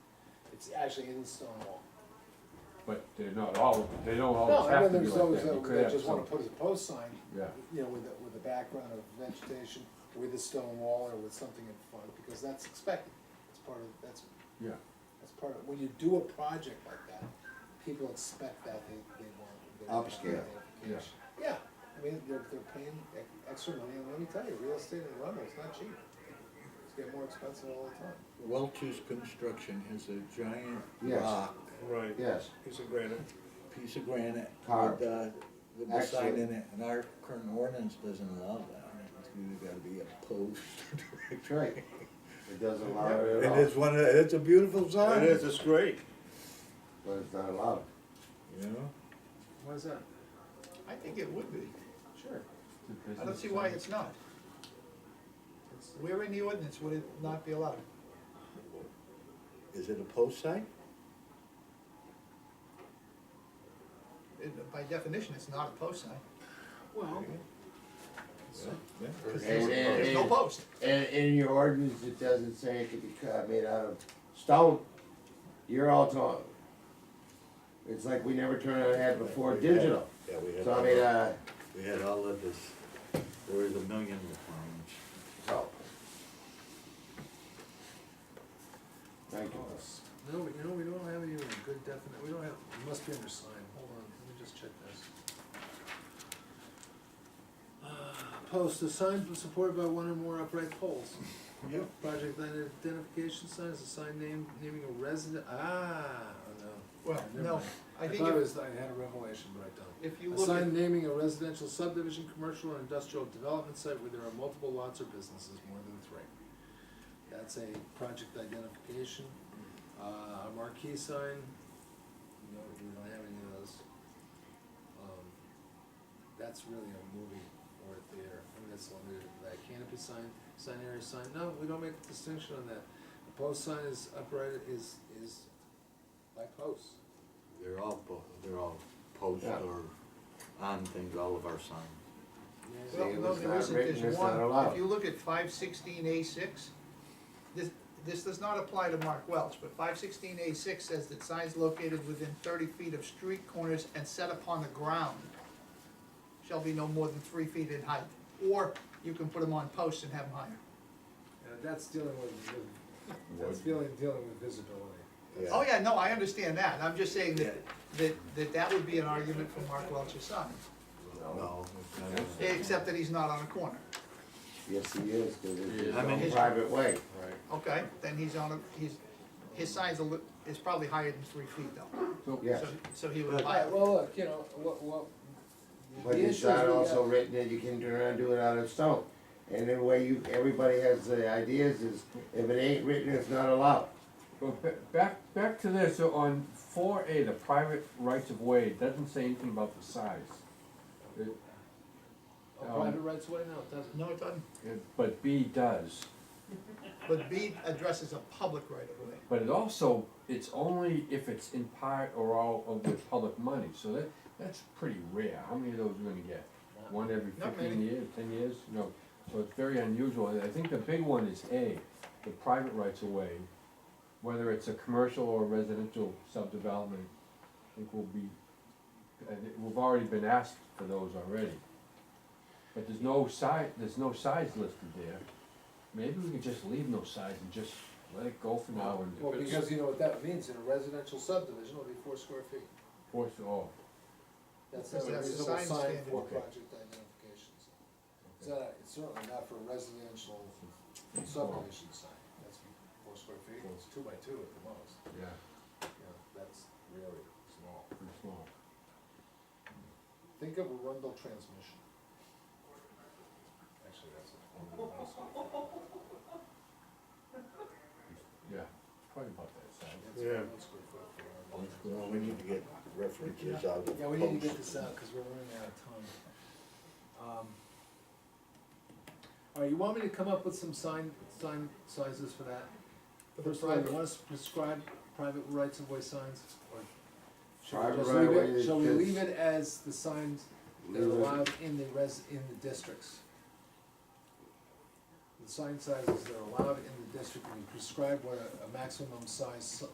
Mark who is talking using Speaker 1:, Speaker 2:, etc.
Speaker 1: it's actually in Stonewall.
Speaker 2: But they're not all, they don't
Speaker 1: No,
Speaker 2: always
Speaker 1: I know
Speaker 2: have Oh, to be
Speaker 1: there's
Speaker 2: like
Speaker 1: those
Speaker 2: that. You
Speaker 1: that
Speaker 2: could
Speaker 1: that
Speaker 2: have
Speaker 1: just wanna
Speaker 2: some,
Speaker 1: put a post sign,
Speaker 2: yeah,
Speaker 1: you know, with a, with a background of vegetation, with a stone wall or with something in front, because that's expected. It's part of, that's,
Speaker 2: yeah.
Speaker 1: that's part of, when you do a project like that, people expect that, they, they want. they want that
Speaker 3: Upscale,
Speaker 2: yeah.
Speaker 1: identification. Yeah, I mean, they're, they're paying ex- extra money, and let me tell you, real estate in Arundel is not cheap. It's getting more expensive all the time.
Speaker 4: Welch's Construction has a giant
Speaker 3: Yes.
Speaker 4: rock,
Speaker 5: Right.
Speaker 3: Yes,
Speaker 5: Piece of granite.
Speaker 4: piece of granite
Speaker 3: Carved.
Speaker 4: with, uh, with the sign
Speaker 3: Actually-
Speaker 4: in it, and our current ordinance doesn't allow that. It's either gotta be a post or
Speaker 3: that's right. It doesn't allow it at
Speaker 4: And
Speaker 3: all,
Speaker 4: it's one of, the- it's a beautiful sign.
Speaker 5: It is, it's great.
Speaker 3: but it's not allowed.
Speaker 4: You know?
Speaker 1: Why is that?
Speaker 6: I think it would be.
Speaker 1: Sure.
Speaker 6: I don't see why it's not. Where in the ordinance would it not be allowed?
Speaker 4: Is it a post sign?
Speaker 6: It- By definition, it's not a post sign.
Speaker 1: Well,
Speaker 4: Yeah.
Speaker 3: And- and-
Speaker 6: There's no
Speaker 3: and-
Speaker 6: post.
Speaker 3: And in your ordinance, it doesn't say it could be cut- made out of stone, you're all talking. It's like we never turned our head before digital,
Speaker 4: Yeah, we had,
Speaker 3: so I mean,
Speaker 4: all-
Speaker 3: uh,
Speaker 4: we had all of this, there was a million requirements.
Speaker 3: so. Thank you.
Speaker 1: No, we- you know, we don't have any good definite, we don't have, it must be under sign, hold on, let me just check this. Uh, Post, a sign supported by one or more upright poles.
Speaker 4: Yep.
Speaker 1: Project identification sign is a sign named, naming a resident, ah, oh, no.
Speaker 6: Well,
Speaker 1: Never
Speaker 6: no,
Speaker 1: mind.
Speaker 6: I think
Speaker 1: thought it
Speaker 6: if,
Speaker 1: was, I had a revelation, but I don't.
Speaker 6: if you
Speaker 1: A
Speaker 6: look at,
Speaker 1: sign naming a residential subdivision, commercial, or industrial development site where there are multiple lots or businesses, more than three. That's a project identification, uh, a marquee sign, no, we don't have any of those. Um, That's really a movie or a theater, I mean, that's limited to that, canopy sign, sign area sign, no, we don't make a distinction on that. A post sign is upright, is, is by posts.
Speaker 4: They're all, po- they're all post
Speaker 3: Yeah.
Speaker 4: or on things, all of our signs.
Speaker 1: Yeah.
Speaker 6: well,
Speaker 3: See, it
Speaker 6: no,
Speaker 3: was
Speaker 6: there
Speaker 3: not
Speaker 6: isn't,
Speaker 3: written,
Speaker 6: there's
Speaker 3: it's not
Speaker 6: one,
Speaker 3: allowed.
Speaker 6: if you look at five sixteen A six, this, this does not apply to Mark Welch, but five sixteen A six says that signs located within thirty feet of street corners and set upon the ground shall be no more than three feet in height, or you can put them on posts and have them higher.
Speaker 1: Uh, that's dealing with, with- that's dealing, dealing with visibility.
Speaker 6: Oh, yeah, no, I understand that, I'm just saying that, that, that that would be an argument for Mark Welch's son,
Speaker 4: No.
Speaker 6: except that he's not on a corner,
Speaker 3: Yes, he is, cause it's his
Speaker 4: How many-
Speaker 3: own private way.
Speaker 6: okay? Then he's on a, he's, his sign's a, li- is probably higher than three feet though.
Speaker 3: Yes,
Speaker 6: So, so he would
Speaker 1: Alright,
Speaker 6: apply,
Speaker 1: well, look, you know, what, what. the
Speaker 3: but
Speaker 1: issue
Speaker 3: it's
Speaker 1: is
Speaker 3: not
Speaker 1: we
Speaker 3: also
Speaker 1: got-
Speaker 3: written that you can turn around and do it out of stone. And the way you, everybody has the ideas is, if it ain't written, it's not allowed.
Speaker 2: Well, ba- back, back to this, so on four A, the private rights of way, it doesn't say anything about the size. It-
Speaker 1: A private rights of way, no, it doesn't.
Speaker 6: no, it doesn't,
Speaker 2: it- But B does,
Speaker 6: but B addresses a public right of way.
Speaker 2: but it also, it's only if it's in part or all of the public money, so that, that's pretty rare, how many of those are gonna get? One every
Speaker 6: Not
Speaker 2: fifteen
Speaker 6: many.
Speaker 2: years, ten years, you know, so it's very unusual, And I think the big one is A, the private rights of way, whether it's a commercial or residential subdevelopment, I think will be, and it- we've already been asked for those already. But there's no size, there's no size listed there, maybe we could just leave no size and just let it go for now and.
Speaker 1: Well, because you know what that means, in a residential subdivision, it'll be four square feet.
Speaker 2: Force, oh,
Speaker 1: That's
Speaker 6: That's
Speaker 1: not a
Speaker 6: the
Speaker 1: reasonable
Speaker 6: sign
Speaker 1: sign
Speaker 6: standard.
Speaker 1: for
Speaker 2: Okay.
Speaker 1: project identification. sign. It's not, it's certainly not for a residential subdivision sign, that's four square feet, it's two by two at the most,
Speaker 2: yeah,
Speaker 1: you know, that's really small.
Speaker 2: pretty small.
Speaker 1: Think of a Rundle transmission. Actually, that's a.
Speaker 2: Yeah, probably about that size.
Speaker 5: Yeah.
Speaker 4: Well, we need to get references out of.
Speaker 1: Yeah, we need to get
Speaker 4: posts.
Speaker 1: this out, cause we're running out of time. Um, All right, you want me to come up with some sign, sign sizes for that?
Speaker 6: For the
Speaker 1: First of all, you
Speaker 6: private.
Speaker 1: want us to prescribe private rights of way signs, or? should we
Speaker 3: Private
Speaker 1: just
Speaker 3: right of
Speaker 1: leave it-
Speaker 3: way is
Speaker 1: Shall we
Speaker 3: just-
Speaker 1: leave it as the signs that are
Speaker 3: Leave it.
Speaker 1: allowed in the res, in the districts? The sign sizes that are allowed in the district, we prescribe what a, a maximum size si-